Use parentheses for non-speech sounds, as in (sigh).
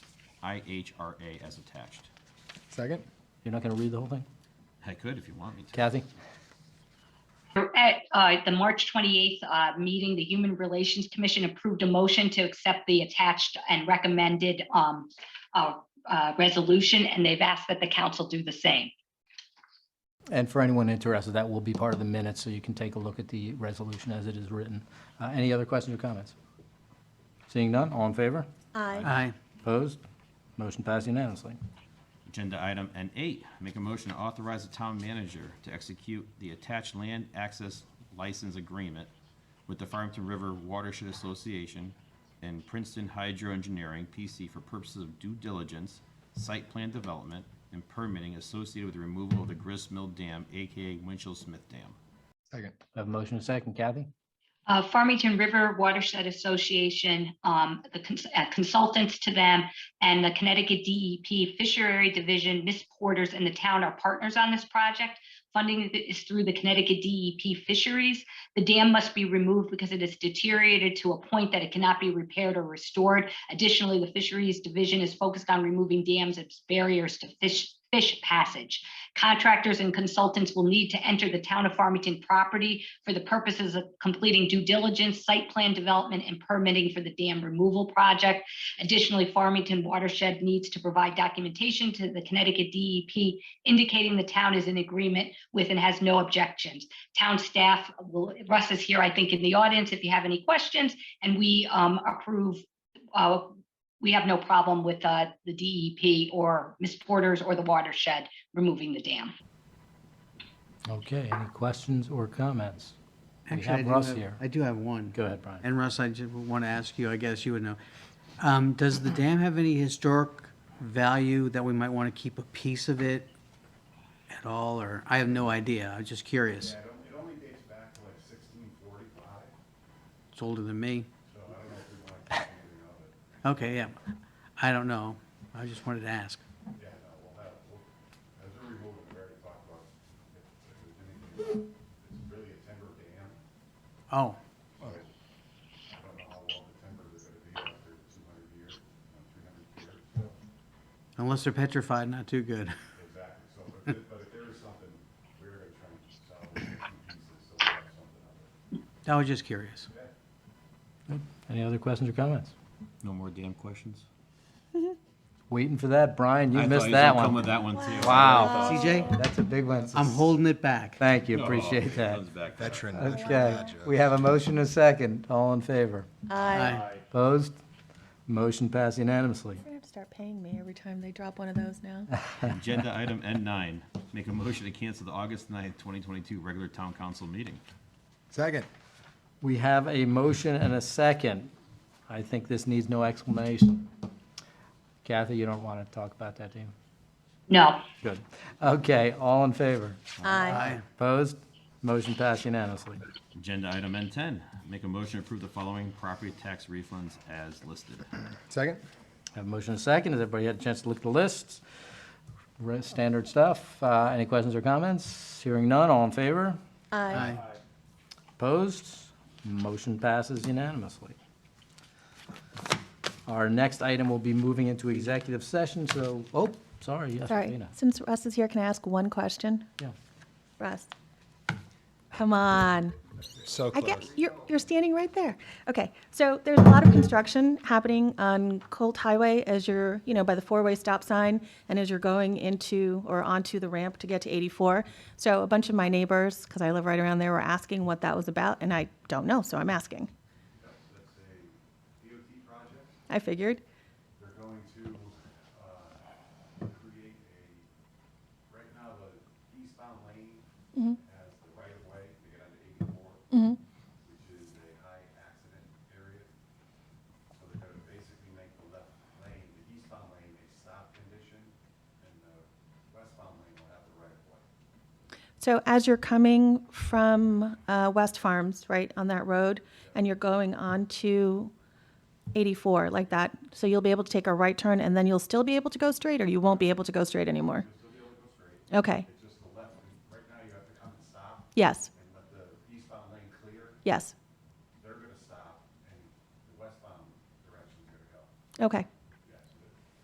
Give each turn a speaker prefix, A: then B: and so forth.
A: IHRA as attached.
B: Second?
C: You're not going to read the whole thing?
A: I could if you want me to.
C: Kathy?
D: At uh, the March 28th uh, meeting, the Human Relations Commission approved a motion to accept the attached and recommended um, uh, uh, resolution, and they've asked that the council do the same.
C: And for anyone interested, that will be part of the minutes, so you can take a look at the resolution as it is written. Uh, Any other questions or comments? Seeing none, all in favor?
E: Aye.
F: aye,
C: Opposed? Motion passed unanimously.
A: Agenda item N8, make a motion to authorize the town manager to execute the attached land access license agreement with the Farmington River Watershed Association and Princeton Hydro Engineering, PC, for purposes of due diligence, site plan development, and permitting associated with the removal of the Grist Mill Dam, AKA Winchell Smith Dam.
B: Second.
C: I Have a motion and a second. Kathy?
D: Uh, Farmington River Watershed Association, um, the cons- uh, consultants to them, and the Connecticut DEP Fishery Division, Miss Porters, and the town are partners on this project. Funding is through the Connecticut DEP Fisheries. The dam must be removed because it is deteriorated to a point that it cannot be repaired or restored. Additionally, the Fisheries Division is focused on removing dams as barriers to fish, fish passage. Contractors and consultants will need to enter the town of Farmington property for the purposes of completing due diligence, site plan development, and permitting for the dam removal project. Additionally, Farmington watershed needs to provide documentation to the Connecticut DEP indicating the town is in agreement with and has no objections. Town staff will, Russ is here, I think, in the audience if you have any questions, and we um, approve, uh, we have no problem with uh, the DEP or Ms. Porter's or the watershed removing the dam.
C: Okay, any questions or comments? We
F: Actually, I
C: have
F: do
C: Russ here.
F: I do have one.
C: Go ahead, Brian.
F: And Russ, I just want to ask you, I guess you would know. Um, Does the dam have any historic value that we might want to keep a piece of it at all, or, I have no idea, I'm just curious.
G: Yeah, it on- it only dates back to like sixteen forty-five,
F: It's older than me.
G: so I don't know if we want to keep anything of it.
F: Okay, yeah, I don't know, I just wanted to ask.
G: Yeah, no, uh, we'll have, we'll, as a removal, we already talked about, if if there's anything, it's really a timber dam.
F: Oh,
G: I don't know how long the timber is gonna be after two hundred years, three hundred years, so,
F: unless they're petrified, not too good. (laughs)
G: exactly. So, but if, but if there is something, we're gonna try and solve it in pieces, so we have something of it.
F: I was just curious.
C: Any other questions or comments?
A: No more dam questions?
C: Waiting for that, Brian,
A: I
C: you
A: thought
C: missed
A: was
C: that
A: gonna Come with that
C: one.
A: one too.
C: Wow,
F: CJ,
C: that's a big one.
F: I'm holding it back.
C: Thank you,
A: Oh,
C: appreciate that.
A: comes back to
B: Veteran.
C: Okay, we have a motion and a second. All in favor?
E: Aye.
F: Aye.
C: Opposed? Motion passed unanimously.
E: They're gonna have to start paying me every time they drop one of those now.
A: Agenda item N9, make a motion to cancel the August 9th, 2022 regular town council meeting.
B: Second.
C: We have a motion and a second. I think this needs no explanation. Kathy, you don't want to talk about that, do you?
D: No,
C: Good. Okay, all in favor?
E: Aye.
F: Aye.
C: Opposed? Motion passed unanimously.
A: Agenda item N10, make a motion to approve the following property tax refunds as listed.
B: Second?
C: Have a motion and a second. Has everybody had a chance to look at the lists? Re- Standard stuff. Uh, Any questions or comments? Hearing none, all in favor?
E: Aye.
F: Aye.
C: Opposed? Motion passes unanimously. Our next item will be moving into executive session, so, oh, sorry, yes,
E: Sorry,
C: Rena.
E: since Russ is here, can I ask one question?
C: Yeah.
E: Russ? Come on.
B: So
E: I get,
B: close.
E: you're, you're standing right there. Okay, so there's a lot of construction happening on Colt Highway as you're, you know, by the four-way stop sign and as you're going into or onto the ramp to get to 84. So a bunch of my neighbors, because I live right around there, were asking what that was about, and I don't know, so I'm asking.
G: That's a DOT project.
E: I figured.
G: They're going to, uh, create a, right now, the eastbound lane has the right of way to get onto eighty-four, which is a high accident area. So they're gonna basically make the left lane, the eastbound lane, a stop condition, and the westbound lane will have the right of way.
E: So as you're coming from uh, West Farms, right, on that road, and you're going on to 84, like that, so you'll be able to take a right turn, and then you'll still be able to go straight, or you won't be able to go straight anymore? Okay,
G: It's just the left, right now, you have to come and stop
E: yes,
G: and let the eastbound lane clear,
E: yes,
G: they're gonna stop, and the westbound direction's gonna go.
E: okay,